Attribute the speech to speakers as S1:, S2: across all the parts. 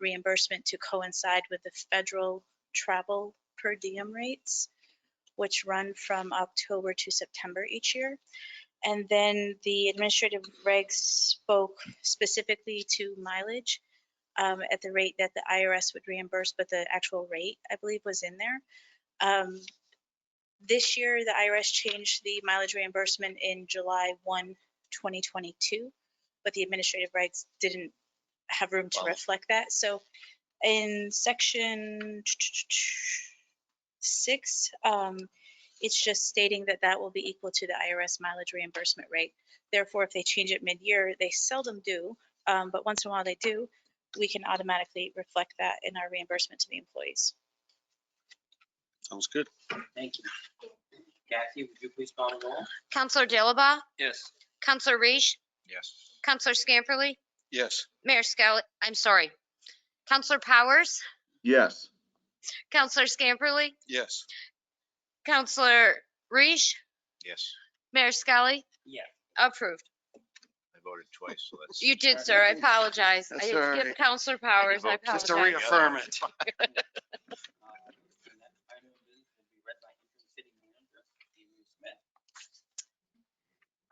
S1: reimbursement to coincide with the federal travel per diem rates, which run from October to September each year. And then the administrative regs spoke specifically to mileage um, at the rate that the IRS would reimburse, but the actual rate, I believe, was in there. Um, This year, the IRS changed the mileage reimbursement in July 1, 2022, but the administrative regs didn't have room to
S2: Wow.
S1: reflect that. So in section six, um, it's just stating that that will be equal to the IRS mileage reimbursement rate. Therefore, if they change it mid-year, they seldom do, um, but once in a while they do, we can automatically reflect that in our reimbursement to the employees.
S3: Sounds good.
S2: Thank you. Kathy, would you please call the roll?
S4: Counselor Dilaba?
S2: Yes.
S4: Counselor Reish?
S3: Yes.
S4: Counselor Scamperly?
S3: Yes.
S4: Mayor Skelly, I'm sorry. Counselor Powers?
S5: yes,
S4: Counselor Scamperly?
S3: Yes.
S4: Counselor Reish?
S3: Yes.
S4: Mayor Skelly?
S2: Yes.
S4: Approved.
S3: I voted twice, so that's.
S4: You did, sir. I apologize. I
S6: That's
S4: did
S6: all
S4: skip
S6: right.
S4: Counselor Powers. I
S6: Just to
S4: apologize.
S6: reaffirm it.
S2: Uh, and that item will be read by interim city manager, Dean Smith.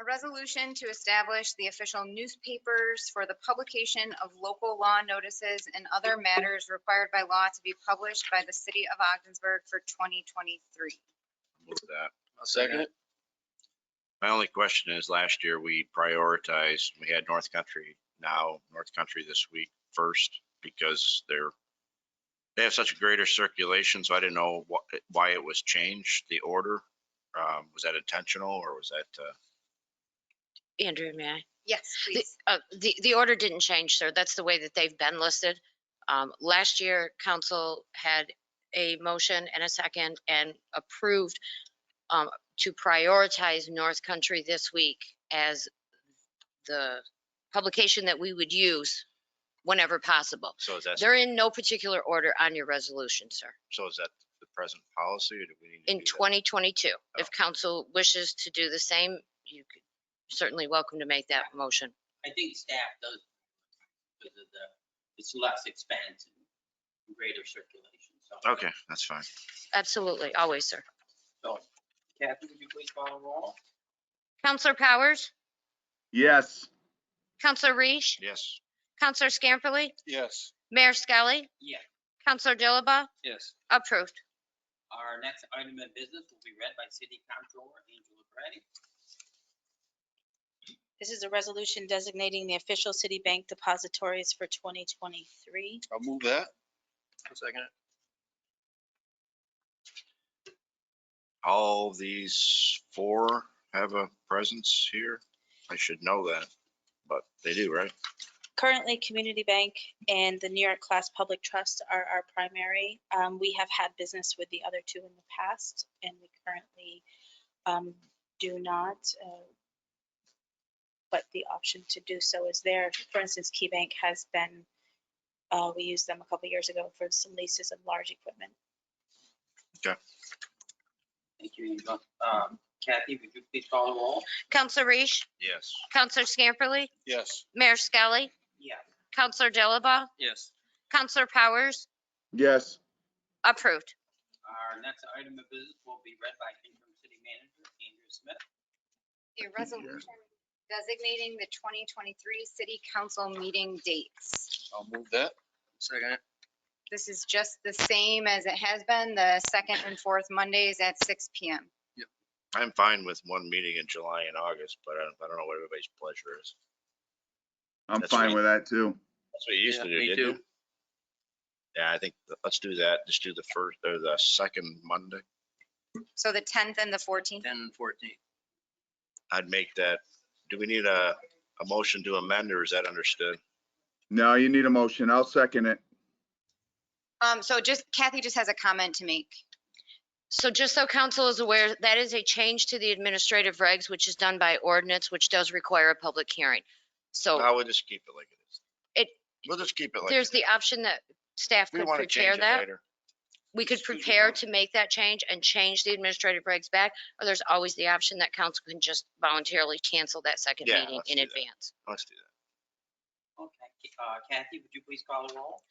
S7: A resolution to establish the official newspapers for the publication of local law notices and other matters required by law to be published by the city of Ogdensburg for 2023.
S8: Move that.
S6: Second it?
S8: My only question is, last year we prioritized, we had North Country now, North Country this week first because they're, they have such a greater circulation, so I didn't know what, why it was changed, the order. Um, was that intentional or was that, uh,
S4: Andrew, may I?
S7: Yes,
S4: The,
S7: please.
S4: uh, the, the order didn't change, sir. That's the way that they've been listed. Um, last year, council had a motion and a second and approved, um, to prioritize North Country this week as the publication that we would use whenever possible.
S8: so is that,
S4: They're in no particular order on your resolution, sir.
S8: so is that the present policy or do we need to
S4: In
S8: do that?
S4: 2022, if
S8: Oh.
S4: council wishes to do the same, you could- certainly welcome to make that motion.
S2: I think staff does, because of the, it's less expense and greater circulation, so.
S8: Okay, that's fine.
S4: Absolutely, always, sir.
S2: So, Kathy, would you please call the roll?
S4: Counselor Powers?
S5: yes.
S4: Counselor Reish,
S8: Yes.
S4: Counselor Scamperly,
S3: Yes.
S4: Mayor Skelly,
S2: Yes.
S4: Counselor Dilaba,
S2: Yes.
S4: approved.
S2: Our next item of business will be read by city comptroller Angela Braddock.
S1: This is a resolution designating the official city bank depositories for 2023.
S3: I'll move that.
S6: Second it?
S8: All these four have a presence here. I should know that, but they do, right?
S1: Currently, Community Bank and the New York Class Public Trust are our primary. Um, We have had business with the other two in the past, and we currently um, do not. uh, But the option to do so is there. For instance, Key Bank has been, uh, we used them a couple years ago for some leases of large equipment.
S2: Thank you, Angela. Um, Kathy, would you please call the roll?
S4: Counselor Reish,
S8: Yes.
S4: Counselor Scamperly,
S3: Yes.
S4: Mayor Skelly,
S2: Yes.
S4: Counselor Dilaba,
S2: Yes.
S4: Counselor Powers,
S5: Yes.
S4: approved.
S2: Our next item of business will be read by interim city manager Andrew Smith.
S7: A resolution designating the 2023 city council meeting dates.
S3: I'll move that.
S6: Second it?
S7: This is just the same as it has been, the second and fourth Mondays at 6 PM.
S8: I'm fine with one meeting in July and August, but I don't, I don't know what everybody's pleasure is.
S5: I'm
S8: That's
S5: fine
S8: right.
S5: with that too.
S8: That's what you used
S6: Yeah,
S8: to do,
S6: me
S8: didn't you? Yeah, I think, th- let's do that. Just do the first or the second Monday.
S7: So the 10th and the 14th.
S6: Ten and fourteen.
S8: I'd make that. Do we need a, a motion to amend or is that understood?
S5: No, you need a motion. I'll second it.
S7: Um, so just Kathy just has a comment to make.
S4: So just so council is aware, that is a change to the administrative regs, which is done by ordinance, which does require a public hearing. So
S8: No, we'll just keep it like it is.
S4: Oh. It-
S8: We'll just keep it like.
S4: there's
S8: it is.
S4: the option that staff
S8: We
S4: could
S8: want to
S4: prepare
S8: change it
S4: that.
S8: later.
S4: we could
S6: Excuse me,
S4: prepare
S6: ma'am.
S4: to make that change and change the administrative regs back, or there's always the option that council can just voluntarily cancel that second
S8: Yeah,
S4: meeting
S8: let's
S4: in
S8: do that.
S4: advance.
S8: Let's do that.
S2: Okay, uh, Kathy, would you please call the roll?